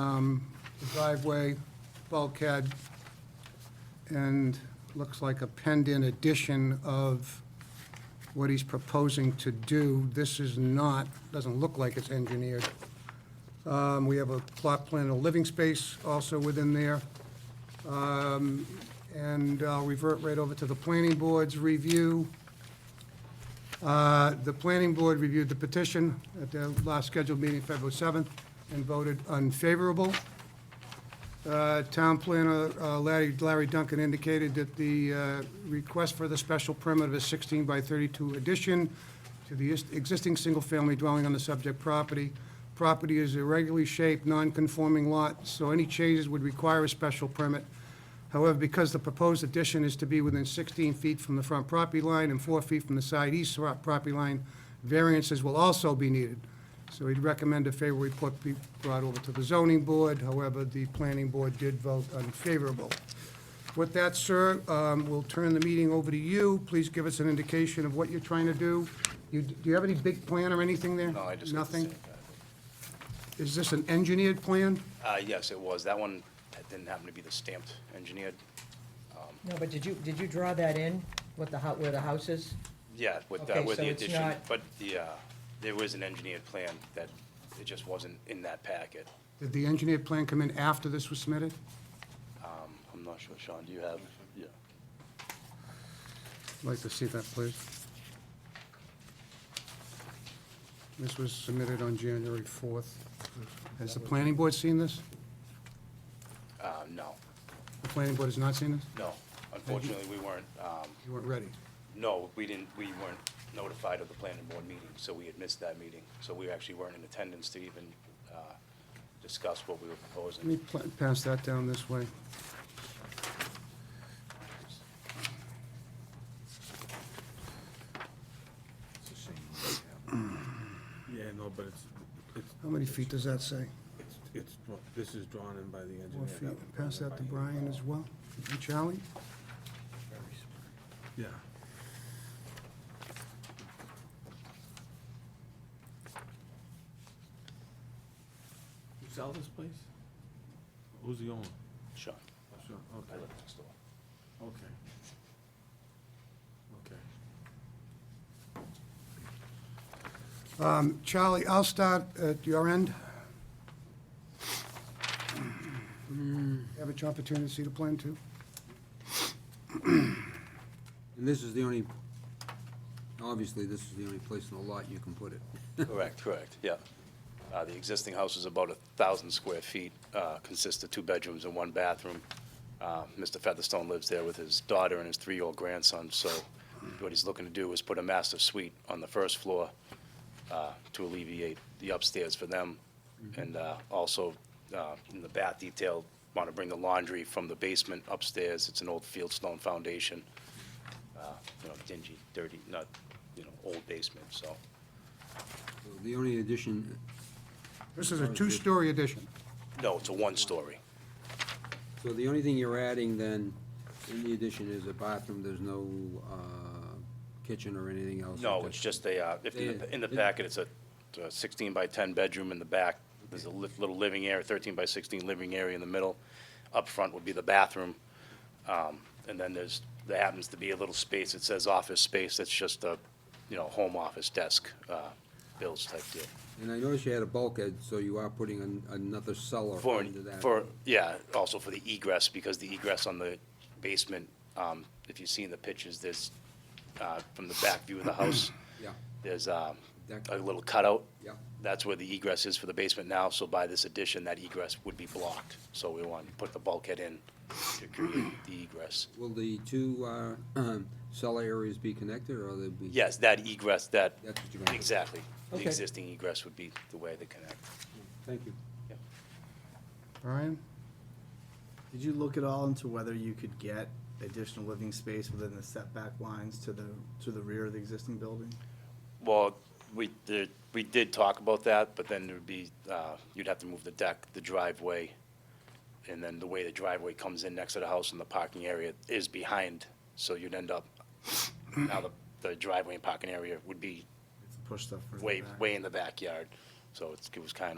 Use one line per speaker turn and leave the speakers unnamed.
um, the driveway, bulkhead, and looks like a penned-in addition of what he's proposing to do. This is not, doesn't look like it's engineered. Um, We have a plot plan of living space also within there. Um, And I'll revert right over to the planning board's review. Uh, The planning board reviewed the petition at their last scheduled meeting, February 7th, and voted unfavorable. Uh, Town planner uh, Larry Larry Duncan indicated that the uh, request for the special permit of a 16 by 32 addition to the is- existing single-family dwelling on the subject property. Property is irregularly shaped, non-conforming lot, so any changes would require a special permit. However, because the proposed addition is to be within 16 feet from the front property line and 4 feet from the side east front property line, variances will also be needed. So he'd recommend a favorable report be brought over to the zoning board. However, the planning board did vote unfavorable. With that, sir, um, we'll turn the meeting over to you. Please give us an indication of what you're trying to do. You- Do you have any big plan or anything there?
No, Oh, I just. got the
Nothing?
same thing.
Is this an engineered plan?
Uh, yes, it was. That one that didn't happen to be the stamped engineered.
No, but did you, did you draw that in, what the, hou- where the house is?
Yeah, with, uh,
Okay,
with the
so it's
addition,
not-
but the, uh, there was an engineered plan that it just wasn't in that packet.
Did the engineered plan come in after this was submitted?
Um, I'm not sure, Sean, do you have? Yeah.
I'd like to see that, please. This was submitted on January 4th. Has the planning board seen this?
Uh, no,
The planning board has not seen this?
no. Unfortunately, we weren't, um,
You weren't ready.
no, we didn't, we weren't notified of the planning board meeting, so we had missed that meeting. So we actually weren't in attendance to even, uh, discuss what we were
Let me
proposing.
pla- pass that down this way.
Yeah, no, but it's, it's,
How many feet does that say?
it's, it's, dra- this is drawn in by the engineer.
Four
that
feet.
was drawn
Pass
in
that to
by him.
Brian as well. And Charlie?
Yeah. You sell this place? Who's the owner?
Sean,
Oh, sure,
I
okay,
live next door.
okay. Okay.
Um, Charlie, I'll start at your end. Have an opportunity to see the plan, too?
And this is the only, obviously, this is the only place in the lot you can put it.
Correct, correct, yeah. Uh, The existing house is about a 1,000 square feet, uh, consists of two bedrooms and one bathroom. Uh, Mr. Featherstone lives there with his daughter and his three-year-old grandson, so what he's looking to do is put a master suite on the first floor uh, to alleviate the upstairs for them, and uh, also uh, in the bath detail, want to bring the laundry from the basement upstairs, it's an old fieldstone foundation, uh, you know, dingy, dirty, not, you know, old basement, so.
So The only addition,
This is a two-story addition.
No, it's a one-story.
so the only thing you're adding then, in the addition is a bathroom, there's no uh, kitchen or anything else?
No, it's just a, uh, if, in the- in the packet, it's a a 16 by 10 bedroom in the back. There's a li- little living area, 13 by 16 living area in the middle. Up front would be the bathroom. Um, And then there's, there happens to be a little space, it says office space, that's just a, you know, home office desk, uh, Bill's type deal.
And I noticed you had a bulkhead, so you are putting an- another cellar
For,
under that.
for, yeah, also for the egress, because the egress on the basement, um, if you see in the pictures, there's, uh, from the back view of the house,
Yeah,
there's um,
Deck.
a little cutout.
Yeah.
That's where the egress is for the basement now, so by this addition, that egress would be blocked. So we want to put the bulkhead in to create the egress.
will the two uh, cellar areas be connected, or they'll be?
Yes, that egress, that,
That's what you're gonna do.
exactly. The
Okay.
existing egress would be the way they connect.
Thank you.
Yep.
Brian?
Did you look at all into whether you could get additional living space within the setback lines to the, to the rear of the existing building?
Well, we, did- we did talk about that, but then there'd be, uh, you'd have to move the deck, the driveway, and then the way the driveway comes in next to the house and the parking area is behind, so you'd end up, now the the driveway and parking area would be
It's Push stuff further
way,
back.
way in the backyard, so it's, it was kind of